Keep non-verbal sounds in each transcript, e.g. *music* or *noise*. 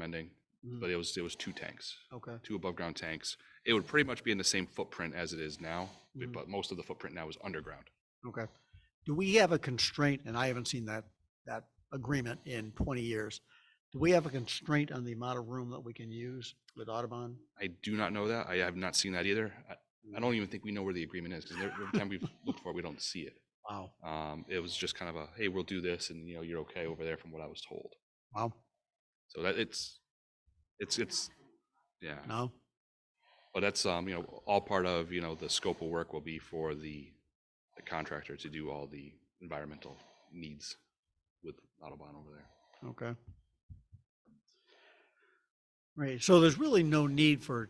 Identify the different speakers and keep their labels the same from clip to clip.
Speaker 1: landing,
Speaker 2: Mhm.
Speaker 1: but it was, it was two tanks,
Speaker 2: Okay,
Speaker 1: two above-ground tanks. It would pretty much be in the same footprint as it is now, b-
Speaker 2: Mhm.
Speaker 1: but most of the footprint now is underground.
Speaker 2: okay. Do we have a constraint, and I haven't seen that, that agreement in twenty years. Do we have a constraint on the amount of room that we can use with Audubon?
Speaker 1: I do not know that. I have not seen that either. I, I don't even think we know where the agreement is, because every time we've *laughs* looked for it, we don't see it.
Speaker 2: Wow,
Speaker 1: Um, it was just kind of a, hey, we'll do this, and, you know, you're okay over there from what I was told.
Speaker 2: wow,
Speaker 1: So that, it's, it's, it's, yeah.
Speaker 2: no?
Speaker 1: But that's, um, you know, all part of, you know, the scope of work will be for the, the contractor to do all the environmental needs with Autobahn over there.
Speaker 2: Okay. Right, so there's really no need for,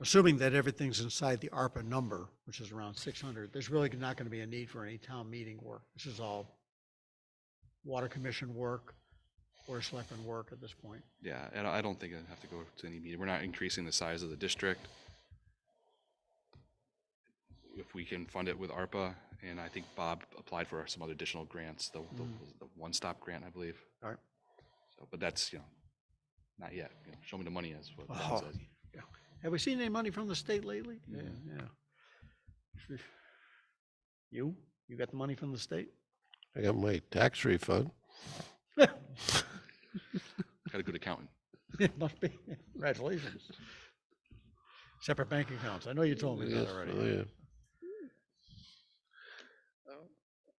Speaker 2: assuming that everything's inside the ARPA number, which is around six hundred, there's really not gonna be a need for any town meeting work. This is all water commission work, or selectmen work at this point.
Speaker 1: Yeah, and I I don't think I'd have to go to any meeting. We're not increasing the size of the district. If we can fund it with ARPA, and I think Bob applied for some other additional grants, the, the,
Speaker 2: Mm.
Speaker 1: the one-stop grant, I believe.
Speaker 2: All right.
Speaker 1: So, but that's, you know, not yet. You know, show me the money is what
Speaker 2: Oh,
Speaker 1: Bob says.
Speaker 2: yeah. Have we seen any money from the state lately? Yeah, yeah. You, you got the money from the state? *laughs*
Speaker 3: I got my tax refund.
Speaker 1: Got a good accountant.
Speaker 2: It must be, congratulations. Separate bank accounts, I know you told me that
Speaker 3: Yes, oh,
Speaker 2: already.
Speaker 3: yeah.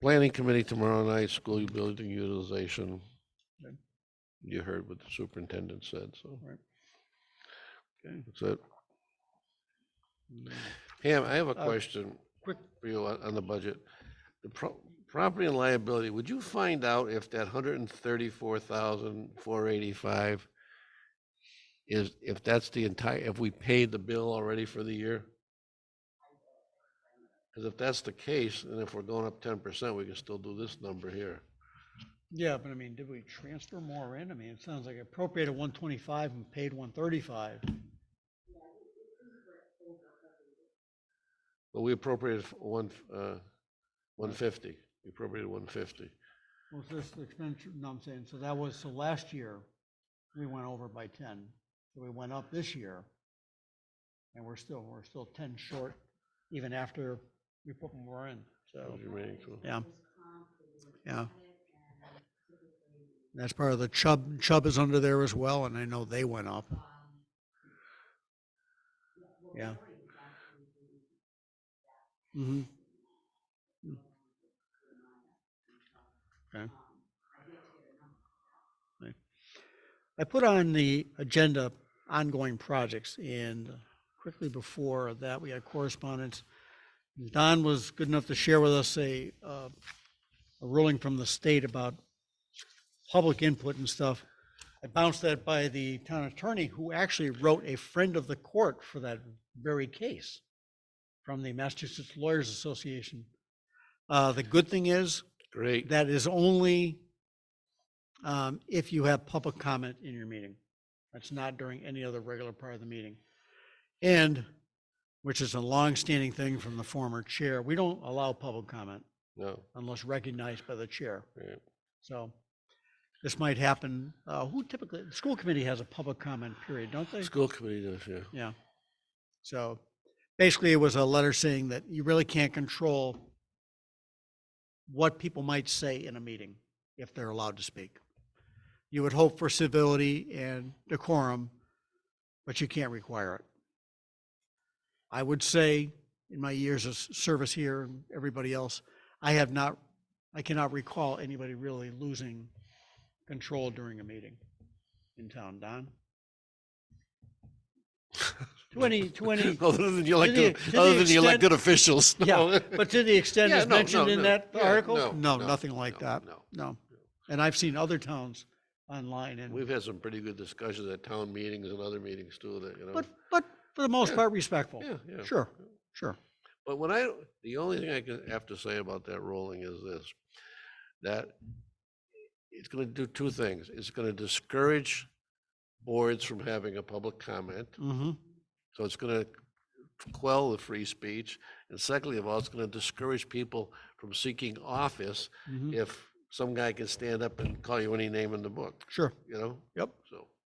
Speaker 3: Planning committee tomorrow night, school building utilization.
Speaker 2: Okay.
Speaker 3: You heard what the superintendent said, so
Speaker 2: Right. Okay.
Speaker 3: that's it.
Speaker 2: Mm.
Speaker 3: Pam, I have a
Speaker 2: Uh,
Speaker 3: question
Speaker 2: quick-
Speaker 3: for you on, on the budget. The pro- property and liability, would you find out if that hundred and thirty-four thousand, four eighty-five is, if that's the entire, if we paid the bill already for the year? Because if that's the case, and if we're going up ten percent, we can still do this number here.
Speaker 2: Yeah, but I mean, did we transfer more in? I mean, it sounds like appropriated one twenty-five and paid one thirty-five.
Speaker 3: But we appropriated f- one, f- uh, one fifty, we appropriated one fifty.
Speaker 2: Well, so this expenditure, no, I'm saying, so that was, so last year, we went over by ten, so we went up this year. And we're still, we're still ten short, even after we put more in, so. Yeah. Yeah. That's part of the Chubb, Chubb is under there as well, and I know they went up. Yeah. Mm-hmm. Okay. Right. I put on the agenda ongoing projects and quickly before that, we had correspondence. Don was good enough to share with us a, uh, a ruling from the state about public input and stuff. I bounced that by the town attorney, who actually wrote a friend of the court for that very case from the Massachusetts Lawyers Association. Uh, the good thing is,
Speaker 3: Great,
Speaker 2: that is only um, if you have public comment in your meeting. That's not during any other regular part of the meeting. And, which is a longstanding thing from the former chair, we don't allow public comment
Speaker 3: no,
Speaker 2: unless recognized by the chair.
Speaker 3: yeah.
Speaker 2: So this might happen. uh, Who typically, the school committee has a public comment period, don't they?
Speaker 3: school committee does, yeah.
Speaker 2: Yeah. So basically, it was a letter saying that you really can't control what people might say in a meeting if they're allowed to speak. You would hope for civility and decorum, but you can't require it. I would say, in my years of s- service here and everybody else, I have not, I cannot recall anybody really losing control during a meeting in town. Don? To any, to any,
Speaker 3: *laughs* Other than the
Speaker 2: the-
Speaker 3: elected,
Speaker 2: to the
Speaker 3: other than the
Speaker 2: extent-
Speaker 3: elected officials.
Speaker 2: Yeah,
Speaker 3: *laughs* no.
Speaker 2: but to the extent
Speaker 3: Yeah,
Speaker 2: it's
Speaker 3: no,
Speaker 2: mentioned
Speaker 3: no,
Speaker 2: in
Speaker 3: no.
Speaker 2: that
Speaker 3: Yeah,
Speaker 2: article,
Speaker 3: no,
Speaker 2: no,
Speaker 3: no,
Speaker 2: nothing like
Speaker 3: no,
Speaker 2: that,
Speaker 3: No,
Speaker 2: no. And I've seen other towns online and,
Speaker 3: we've had some pretty good discussions at town meetings and other meetings too, that, you know.
Speaker 2: but, but for the most
Speaker 3: Yeah.
Speaker 2: part respectful.
Speaker 3: Yeah, yeah.
Speaker 2: Sure, sure.
Speaker 3: But when I, the only thing I can have to say about that ruling is this, that it's gonna do two things. It's gonna discourage boards from having a public comment.
Speaker 2: hmm
Speaker 3: So it's gonna quell the free speech. And secondly of all, it's gonna discourage people from seeking office
Speaker 2: hmm
Speaker 3: if some guy can stand up and call you any name in the book,
Speaker 2: sure.
Speaker 3: you know?
Speaker 2: Yep.
Speaker 3: So.